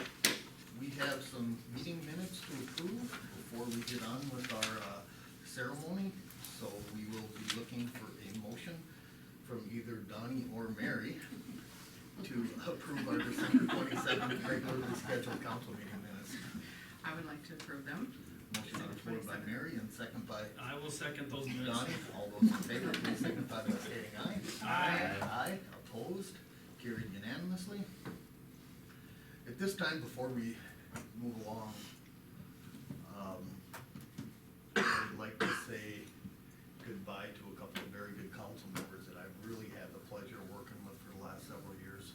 uh, So we will be looking for a motion from either Donnie or Mary to approve our December twenty-seventh regularly scheduled council meeting minutes. I would like to approve them. Motion on the floor by Mary and second by I will second those minutes. Donnie. All those in favor, please signify by stating aye. Aye. Aye, opposed, carried unanimously. At this time, before we move along, um, I'd like to say goodbye to a couple of very good council members that I've really had the pleasure of working with for the last several years.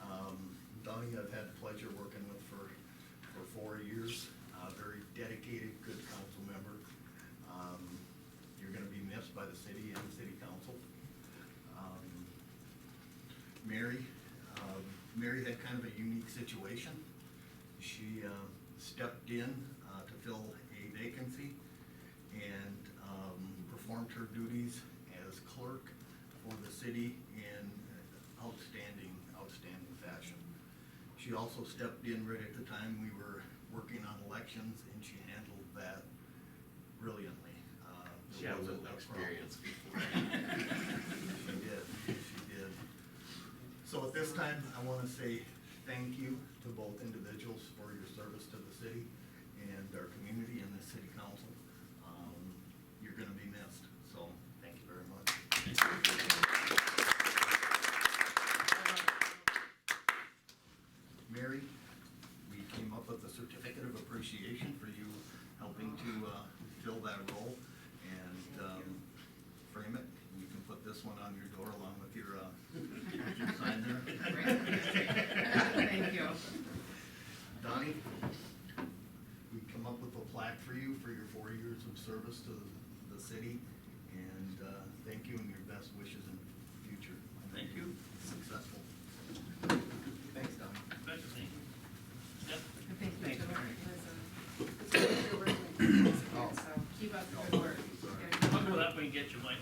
Um, Donnie, I've had the pleasure of working with for, for four years, a very dedicated, good council member. Um, You're gonna be missed by the city and the city council. Um, Mary, um, Mary had kind of a unique situation. She um, stepped in uh, to fill a vacancy and um, performed her duties as clerk for the city in outstanding, outstanding fashion. She also stepped in right at the time we were working on elections and she handled that brilliantly. Uh, there She had a wasn't little problem. experience before. She did, she did. So at this time, I wanna say thank you to both individuals for your service to the city and our community and the city council. Um, You're gonna be missed, so thank you very much. Mary, we came up with a certificate of appreciation for you helping to, uh, fill that role and, um, frame it. You can put this one on your door along with your, uh, with your sign there. Thank you. Donnie, we come up with a plaque for you for your four years of service to the city, and uh, thank you and your best wishes in the future. Thank you. Successful. Thanks, Donnie. Better thing. Yep. And Thank you to Liz and- you're working with people experience, So keep up the good work. I'll go that way and get you, Mike.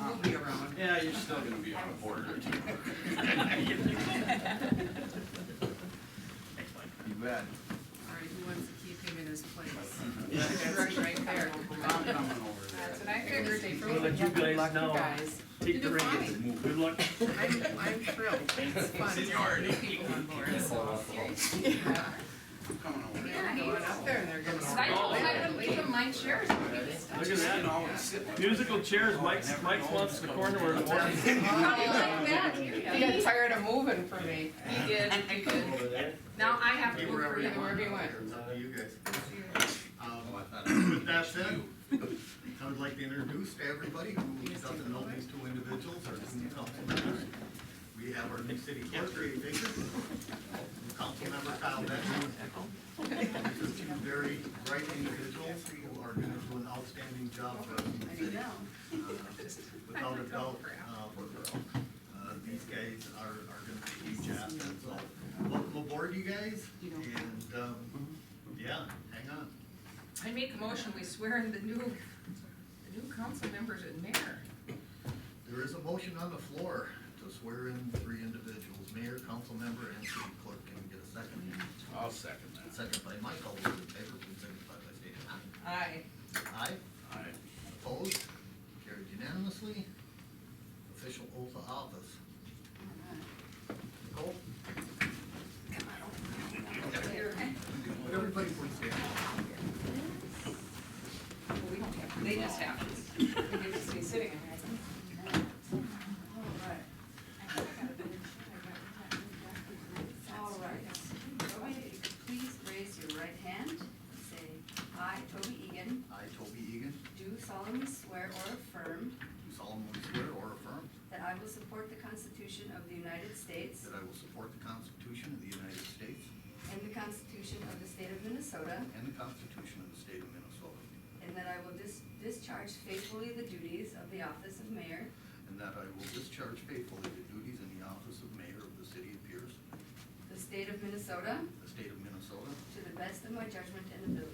I'll be around. Yeah, you're still gonna be on a board or two. Thanks, Mike. You bet. All right, who wants to keep him in his place? Yeah. That's Right right there. I'm coming over there. That's what I figured. They I'll let really you good luck guys you now guys. take the You're reins. fine. Good luck. I'm, I'm thrilled. It's fun to have new people on board, so. Yeah. I'm coming over there. They're going up there and they're gonna. I told him I wouldn't leave him, mine shares. Look at You that. know, I would sit like- Musical chairs, Mike's, Mike's wants the corner where it wants. Probably like that, He here got tired of moving for me. He did, he did. Over there. Now I have to work for you. you wherever you want. It's up to you guys. Oh, I Um, thought it was With that said, you. I would like to introduce to everybody who doesn't know these two individuals or two council members. We have our new city clerk, Ray Baker, Councilmember Kyle Benson. These are two very bright individuals who are going to do an outstanding job for us in the city. Uh, Without a doubt, uh, we're, uh, these guys are, are going to be huge assets. So welcome aboard, you guys, and, um, yeah, hang on. I make a motion, we swear in the new, the new council members and mayor. There is a motion on the floor to swear in three individuals, mayor, council member, and city clerk. Can we get a second? I'll second that. Second by Mike. All those in favor, please signify by stating aye. Aye. Aye, Aye. opposed, carried unanimously. Official oath of office. Nicole? Would Everybody please stand. We don't have, they just have. We could just be sitting in there. All right. Please raise your right hand. Say, I, Toby Egan, I, Toby Egan, do solemnly swear or affirm do solemnly swear or affirm that I will support the Constitution of the United States that I will support the Constitution of the United States and the Constitution of the State of Minnesota, and the Constitution of the State of Minnesota, and that I will dis- discharge faithfully the duties of the office of mayor and that I will discharge faithfully the duties in the office of mayor of the city of Pierce, of the State of Minnesota the state of Minnesota, to the best of my judgment and ability.